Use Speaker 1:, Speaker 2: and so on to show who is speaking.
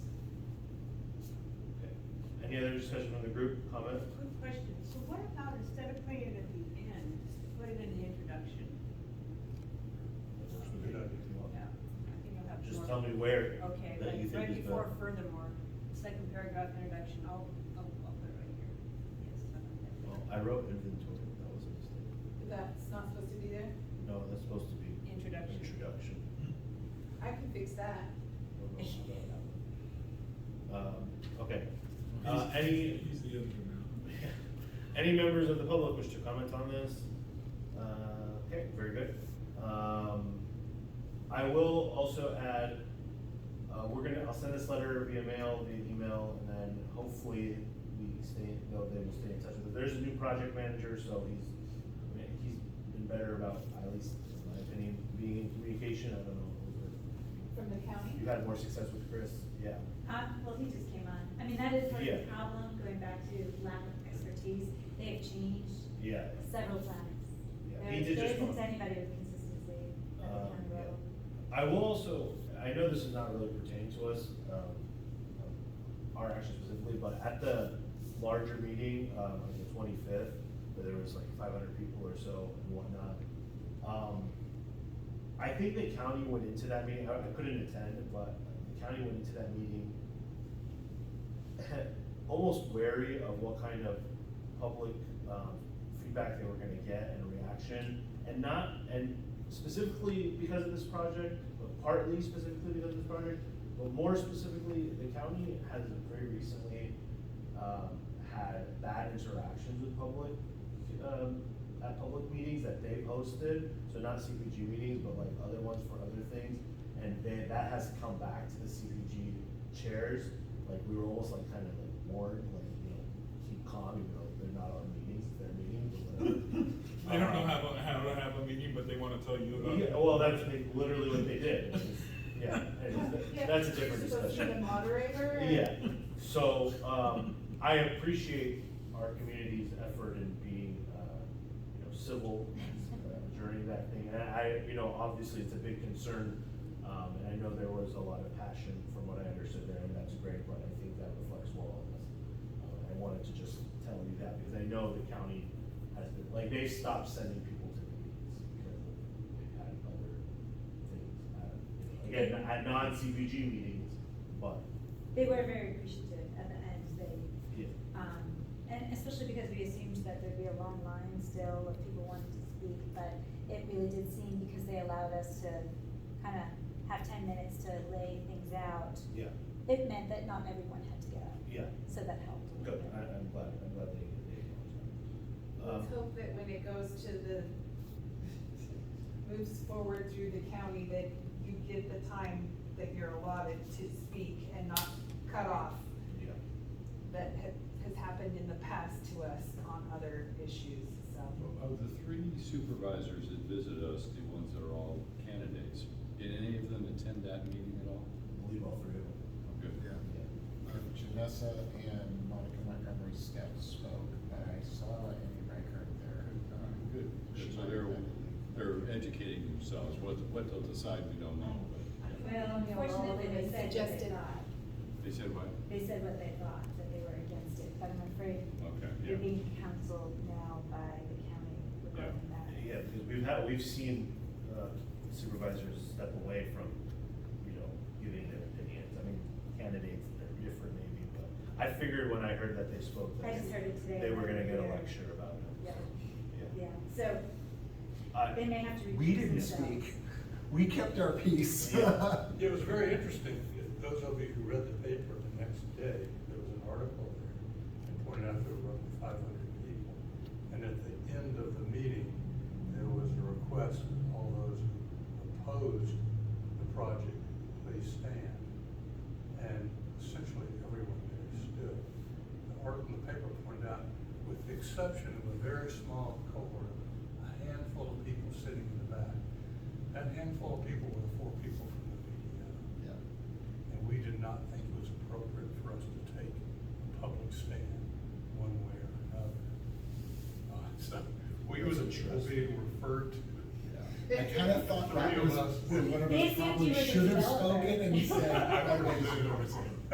Speaker 1: Any other discussion on the group comment?
Speaker 2: Quick question, so what about instead of putting it at the end, put it in the introduction? Yeah, I think I'll have
Speaker 1: Just
Speaker 2: more-
Speaker 1: tell me where.
Speaker 2: Okay,
Speaker 3: That you
Speaker 2: like
Speaker 3: think is
Speaker 2: right before
Speaker 3: better.
Speaker 2: furthermore, second paragraph introduction, I'll, I'll, I'll put it right here. Yes, I like that.
Speaker 3: Well, I wrote inventory, that was a mistake.
Speaker 4: That's not supposed to be there?
Speaker 3: No, that's supposed to be.
Speaker 2: Introduction.
Speaker 3: Introduction.
Speaker 4: I can fix that.
Speaker 3: Um, okay. Uh, any,
Speaker 5: He's the other one
Speaker 3: any members of the public wish to comment on this? Uh, okay, very good. Um,
Speaker 1: I will also add, uh, we're gonna, I'll send this letter via mail, via email, and then hopefully we stay, they'll, they will stay in touch with it. There's a new project manager, so he's, I mean, he's been better about, at least in my opinion, being in communication, I don't know.
Speaker 4: From the county?
Speaker 1: You had more success with Chris, yeah.
Speaker 6: Uh, well, he just came on. I mean, that is part of the
Speaker 1: Yeah.
Speaker 6: problem, going back to lack of expertise. They have changed
Speaker 1: Yeah.
Speaker 6: several times.
Speaker 1: Yeah,
Speaker 6: There
Speaker 1: he did
Speaker 6: there
Speaker 1: just
Speaker 6: isn't
Speaker 1: come on.
Speaker 6: anybody with consistency at the
Speaker 1: Uh,
Speaker 6: county
Speaker 1: yeah.
Speaker 6: level.
Speaker 1: I will also, I know this is not really pertaining to us, um, our action specifically, but at the larger meeting, um, on the twenty-fifth, where there was like five hundred people or so and whatnot, um, I think the county went into that meeting, I I couldn't attend, but the county went into that meeting almost wary of what kind of public, um, feedback they were gonna get and reaction. And not, and specifically because of this project, but partly specifically because of this project, but more specifically, the county has very recently, um, had bad interactions with public, um, at public meetings that they hosted, so not CPG meetings, but like other ones for other things. And they, that has come back to the CPG chairs, like we were almost like kind of like warned, like, you know, keep calm, you know, they're not our meetings, it's their meetings, but whatever.
Speaker 5: They don't know how, to- how to have a meeting, but they wanna tell you about it.
Speaker 1: Yeah, well, that's like, literally what they did, yeah, anyways,
Speaker 4: Yeah,
Speaker 1: that's a different
Speaker 4: you're supposed to be the
Speaker 1: discussion.
Speaker 4: moderator and-
Speaker 1: Yeah, so, um, I appreciate our community's effort in being, uh, you know, civil, uh, during that thing, and I, you know, obviously, it's a big concern. Um, and I know there was a lot of passion from what I understood there, and that's great, but I think that reflects well on us. Uh, I wanted to just tell you that, because I know the county has been, like, they've stopped sending people to the meetings because of, they've had other things. uh, you know, Again, at non-CBG meetings, but,
Speaker 6: They were very appreciative at the end. They,
Speaker 1: yeah.
Speaker 6: um, and especially because we assumed that there'd be a long line still of people wanting to speak, but it really did seem because they allowed us to kind of have ten minutes to lay things out.
Speaker 1: Yeah.
Speaker 6: It meant that not everyone had to get up,
Speaker 1: Yeah,
Speaker 6: so that helped. a little
Speaker 1: good,
Speaker 6: bit.
Speaker 1: I, I'm glad, I'm glad they, they acknowledged that. Um,
Speaker 4: Let's hope that when it goes to the, moves forward through the county, that you get the time that you're allotted to speak and not cut off
Speaker 1: Yeah,
Speaker 4: that ha- has happened in the past to us on other issues, so.
Speaker 7: Of the three supervisors that visit us, the ones that are all candidates, did any of them attend that meeting at all? Oh,
Speaker 1: I believe all three of them.
Speaker 7: Good.
Speaker 8: Yeah,
Speaker 1: Yeah.
Speaker 8: Uh, Janessa and Monica Montgomery Step spoke, but I saw any record there. um,
Speaker 7: Good.
Speaker 8: she
Speaker 7: So
Speaker 8: might
Speaker 7: they're,
Speaker 8: have been-
Speaker 7: they're educating themselves, what, what they'll decide, we don't know, but, yeah.
Speaker 6: Well, unfortunately, they said what they
Speaker 4: Suggested.
Speaker 6: thought.
Speaker 7: They said what?
Speaker 6: They said what they thought, that they were against it, but I'm afraid
Speaker 7: Okay, yeah.
Speaker 6: you're being counseled now by the county regarding that.
Speaker 1: Yeah, because we've had, we've seen uh, supervisors step away from, you know, giving their opinions. I mean, candidates, they're different maybe, but I figured when I heard that they spoke that.
Speaker 6: I just heard it today.
Speaker 1: They were gonna get a
Speaker 6: Yeah.
Speaker 1: lecture about it.
Speaker 6: Yeah.
Speaker 1: so,
Speaker 6: Yeah, so
Speaker 1: I-
Speaker 6: they may have to. recuse
Speaker 8: We didn't
Speaker 6: themselves.
Speaker 8: speak, we kept our peace.
Speaker 1: Yeah.
Speaker 9: It was very interesting, those of you who read the paper the next day, there was an article there that pointed out there were five hundred people. And at the end of the meeting, there was a request that all those who opposed the project, please stand. And essentially, everyone there stood. The article in the paper pointed out, with the exception of a very small cohort, a handful of people sitting in the back. That handful of people were the four people from the PDO.
Speaker 8: Yeah.
Speaker 9: And we did not think it was appropriate for us to take a public stand one way or another. Uh, So we was,
Speaker 1: That's
Speaker 9: being referred to.
Speaker 8: I kind of thought that
Speaker 9: Three of
Speaker 8: was,
Speaker 9: us.
Speaker 8: one of
Speaker 6: They
Speaker 8: us
Speaker 6: assumed you
Speaker 8: probably
Speaker 6: were the
Speaker 8: should have
Speaker 6: developer.
Speaker 8: spoken and said.
Speaker 5: I
Speaker 8: "Oh,
Speaker 5: would
Speaker 8: wait,
Speaker 5: have said,